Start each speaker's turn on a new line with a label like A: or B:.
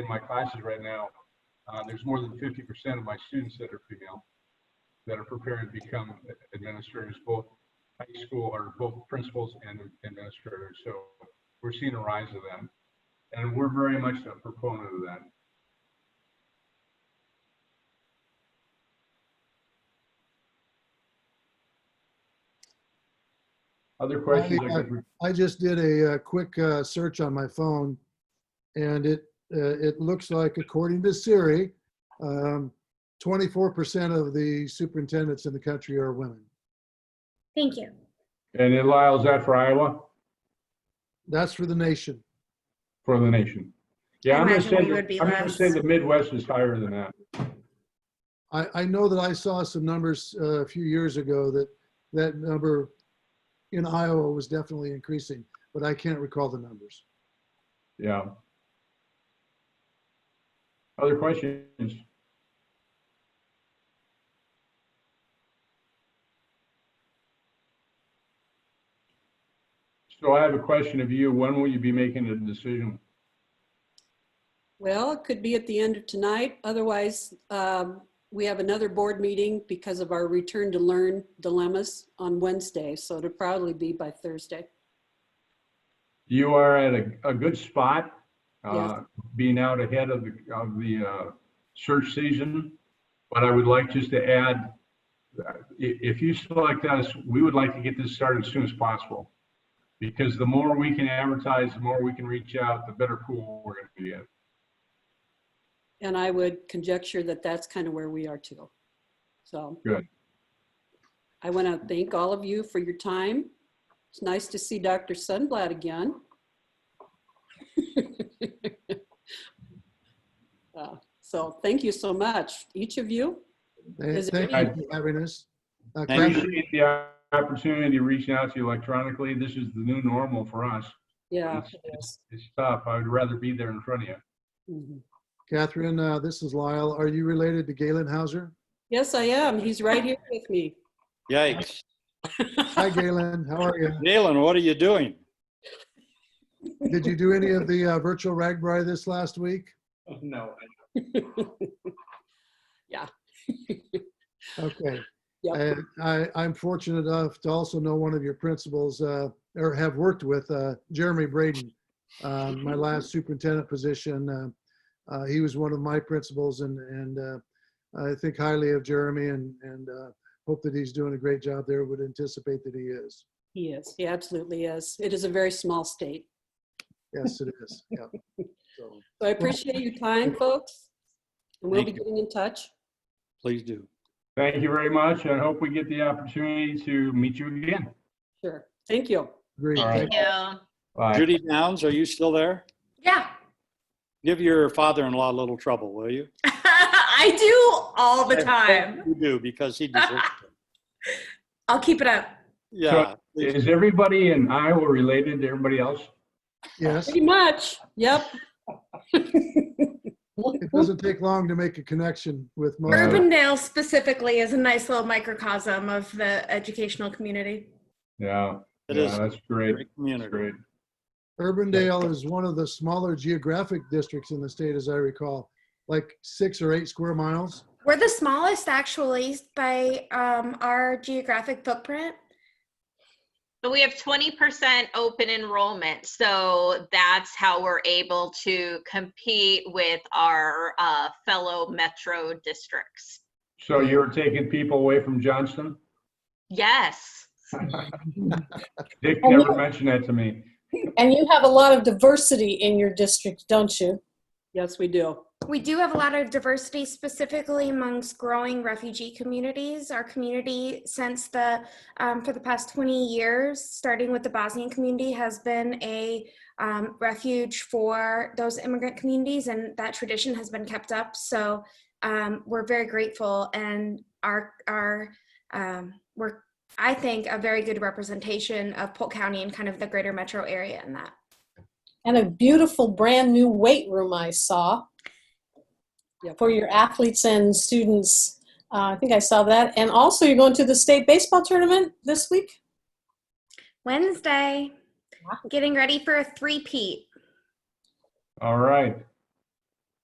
A: in my classes right now, uh, there's more than fifty percent of my students that are female, that are preparing to become administrators, both high school or both principals and administrators. So we're seeing a rise of that. And we're very much a proponent of that. Other questions? I could-
B: I just did a, uh quick uh, search on my phone, and it uh, it looks like, according to Siri, um, 24% of the superintendents in the country are women.
C: Thank you.
A: And then Lyle, is that for Iowa,
B: That's for the nation.
A: for the nation? Yeah, I'm gonna
D: Imagine
A: say,
D: we would
A: that-
D: be
A: I'm gonna
D: less.
A: say the Midwest is higher than that.
B: I, I know that I saw some numbers uh, a few years ago that that number in Iowa was definitely increasing, but I can't recall the numbers.
A: Yeah. Other questions? So I have a question of you. When will you be making a decision?
E: Well, it could be at the end of tonight. Otherwise, um, we have another board meeting because of our return to learn dilemmas on Wednesday. So it'll probably be by Thursday.
A: You are at a, a good spot, uh,
E: Yes.
A: being out ahead of the, of the, uh, search season. But I would like just to add, uh, i- if you select us, we would like to get this started as soon as possible. Because the more we can advertise, the more we can reach out, the better pool we're gonna get.
E: And I would conjecture that that's kind of where we are too. So.
A: Good.
E: I want to thank all of you for your time. It's nice to see Dr. Sunblat again. Uh, So thank you so much, each of you.
B: Thank
E: Is it
B: thank
A: any-
B: you for having us. Uh,
A: I
B: Kathy,
A: Appreciate the opportunity to reach out to you electronically. This is the new normal for us.
E: Yeah.
A: Yes.
E: it is.
A: It's tough. I would rather be there in front of you.
E: Mhm.
B: Catherine, uh, this is Lyle. Are you related to Galen Hauser?
E: Yes, I am. He's right here with me.
D: Yikes.
B: Hi, Galen. How are you?
D: Galen, what are you doing?
B: Did you do any of the uh, virtual Ragbri this last week?
A: No.
B: Okay.
E: Yep.
B: And I, I'm fortunate enough to also know one of your principals, uh, or have worked with, uh, Jeremy Braden. Um, my last superintendent position, uh, uh, he was one of my principals and, and, uh, I think highly of Jeremy and, and, uh, hope that he's doing a great job there, would anticipate that he is.
E: He is. He absolutely is. It is a very small state.
B: Yes, it is. Yeah. So,
E: So I appreciate your time, folks. And we'll be
D: Thank you.
E: getting in touch.
D: Please do.
A: Thank you very much. I hope we get the opportunity to meet you again.
E: Sure. Thank you.
B: Great.
A: All right.
B: Thank-
F: Yeah.
A: Bye.
D: Judy Downs, are you still there?
F: Yeah.
D: Give your father-in-law a little trouble, will you?
F: I do all the time.
D: You do, because he deserves it.
F: I'll keep it up.
D: Yeah. please
A: Is everybody in Iowa related to everybody else?
B: Yes,
E: Pretty much. Yep.
B: it doesn't take long to make a connection with most. of-
F: Urbandale specifically is a nice little microcosm of the educational community.
A: Yeah.
D: It
A: yeah,
D: is a
A: That's great.
D: great
A: That's
D: community.
A: great.
B: Urbandale is one of the smaller geographic districts in the state, as I recall, like six or eight square miles.
F: We're the smallest actually by um, our geographic footprint.
G: But we have twenty percent open enrollment, so that's how we're able to compete with our uh, fellow metro districts.
A: So you're taking people away from Johnston?
G: Yes,
A: Dick never mentioned that to me.
H: And you have a lot of diversity in your district, don't you?
E: Yes, we do.
F: We do have a lot of diversity, specifically amongst growing refugee communities. Our community, since the um, for the past 20 years, starting with the Bosnian community, has been a um, refuge for those immigrant communities, and that tradition has been kept up. So um, we're very grateful, and our our um, we're I think a very good representation of Polk County and kind of the greater metro area in that.
H: And a beautiful brand new weight room I saw
E: Yep.
H: for your athletes and students. Uh, I think I saw that. And also, you're going to the state baseball tournament this week.
F: Wednesday, getting ready for a three-peat.
A: All right.